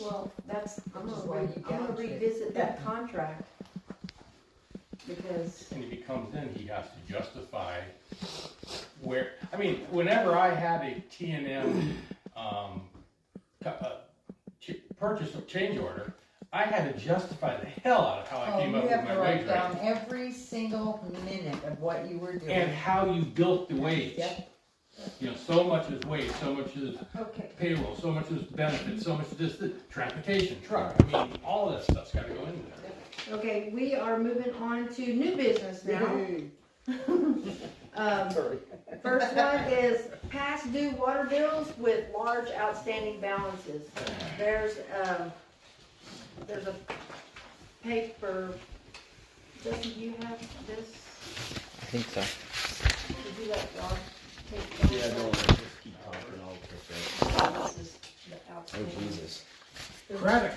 Well, that's, I'm Which is gonna, why re- you I'm gonna gouged it. revisit that contract. Because, And if he comes in, he has to justify where, I mean, whenever I had a T and M, um, cu- uh, ch- purchase or change order, I had to justify the hell out of how I Oh, came you up with have to my write wage down rate. every single minute of what you were And doing. how you built the wage. Yep. You know, so much is wage, so much is okay, payroll, so much is benefits, so much is this, this, transportation, truck, I mean, all of that stuff's gotta go into there. okay, we are moving on to new business now. Um, first one is past due water bills with large outstanding balances. There's, um, there's a paper, Jesse, do you have this? I think so. Did you let Rob take that? just keep talking all the This is the outstanding. Oh, Jesus. Credit.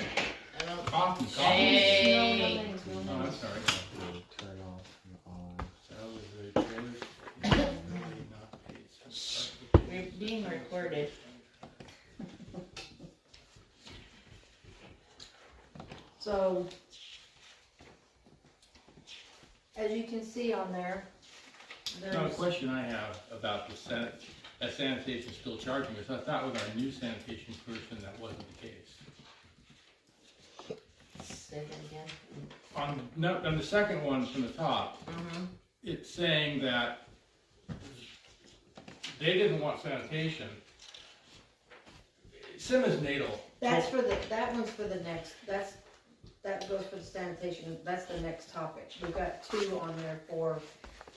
I don't- Coffee, coffee. Hey. No, I'm sorry. Turn off and on. That was a trailer. Really not paid. We're being recorded. So, as you can see on there, Now, a there's, question I have about the sanit, that sanitation still charging us, I thought with our new sanitation person, that wasn't the case. Say that again. On, no, on the second one from the top, Mm-hmm. it's saying that they didn't want sanitation. Simmons Natal. that's for the, that one's for the next, that's, that goes for the sanitation, that's the next topic. We've got two on there for,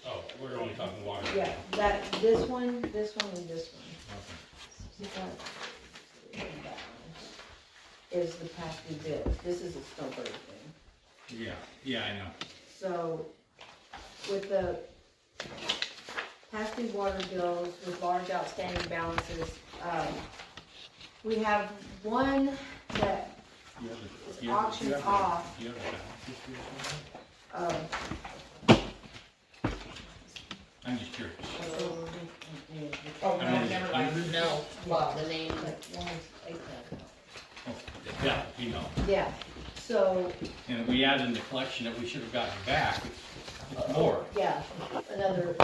Oh, we're only talking water. yeah, that, this one, this one, and this one. Okay. Is that- that one Is the past due bill, this is a snowbird thing. Yeah, yeah, I know. So with the past due water bills with large outstanding balances, um, we have one that, You have the- It's you have the- auction you have the- off. You have the balances here somewhere? um, I'm just curious. Oh, I mean, hundred? No, well, the name. Oh, Yeah, you know, yeah, so, and we added in the collection that we should have gotten back, it's- it's more. yeah, another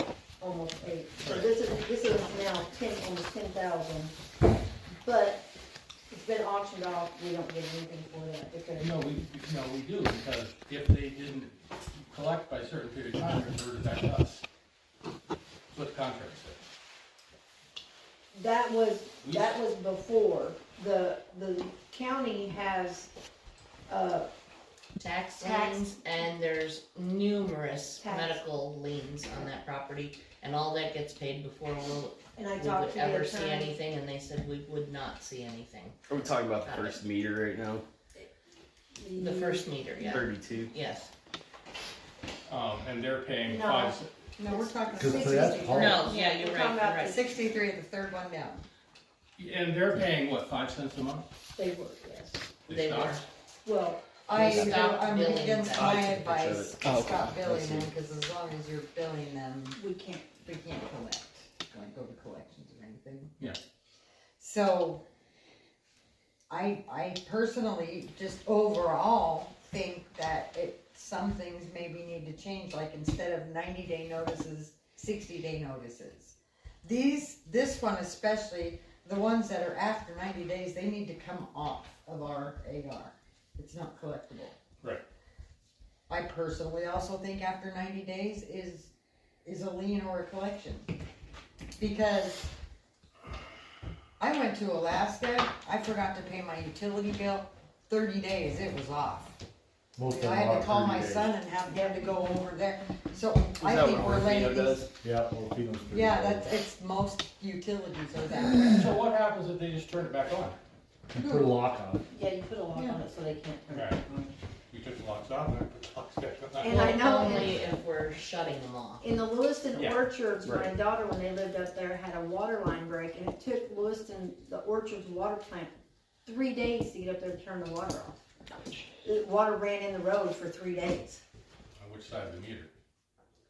almost eight. So Right. this is, this is now ten, almost ten thousand, but it's been auctioned off, we don't get anything for that because, No, we, no, we do, because if they didn't collect by a certain period of time, it reverted back to us. That's What the contract said. That was, We- that was before, the, the county has, uh, Tax Tax. liens, and there's numerous Tax. medical liens on that property, and all that gets paid before we'll, and I we talked would to the ever see attorney. anything, and they said we would not see anything. Are we talking about the first meter right now? The Mm. first meter, yeah, Thirty-two. yes. Um, and they're paying No. five, No, we're talking Cause that's sixty-three. Paul. No, yeah, you're We're right, talking about you're right. Sixty-three, the third one down. and they're paying, what, five cents a month? They were, yes. They stopped? were. Well, I, Stop I'm billing against them. my I took a picture of advice, it. Oh, okay. stop billing I see. them, cause as long as you're billing them, we can't, we can't collect, like over collections or anything. Yeah. So, I, I personally, just overall, think that it, some things maybe need to change, like instead of ninety day notices, sixty day notices. These, this one especially, the ones that are after ninety days, they need to come off of our AR. It's not collectible. Right. I personally also think after ninety days is, is a lien or a collection. Because I went to Alaska, I forgot to pay my utility bill, thirty days, it was off. Most of I had them are to call 30 my days. son and have him to go over there, so Is I that think what we're Orfino letting these does? Yeah, well, Pino's thirty yeah, days. that's, it's most utilities are that. So what happens if they just turn it back on? You put a lock on it. yeah, you put a lock on it so they can't turn it Right. on. We took the locks off, and I put the locks back on. And I know- Only if we're shutting them off. In the Lewiston Yeah, orchards, my right. daughter, when they lived up there, had a water line break and it took Lewiston, the orchard's water plant, three days to get up there to turn the water off. The water ran in the road for three days On which side of the meter?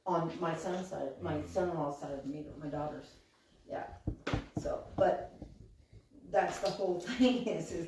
on my son's side, my son-in-law's side of the meter, my daughter's, yeah. So, but that's the whole thing is, is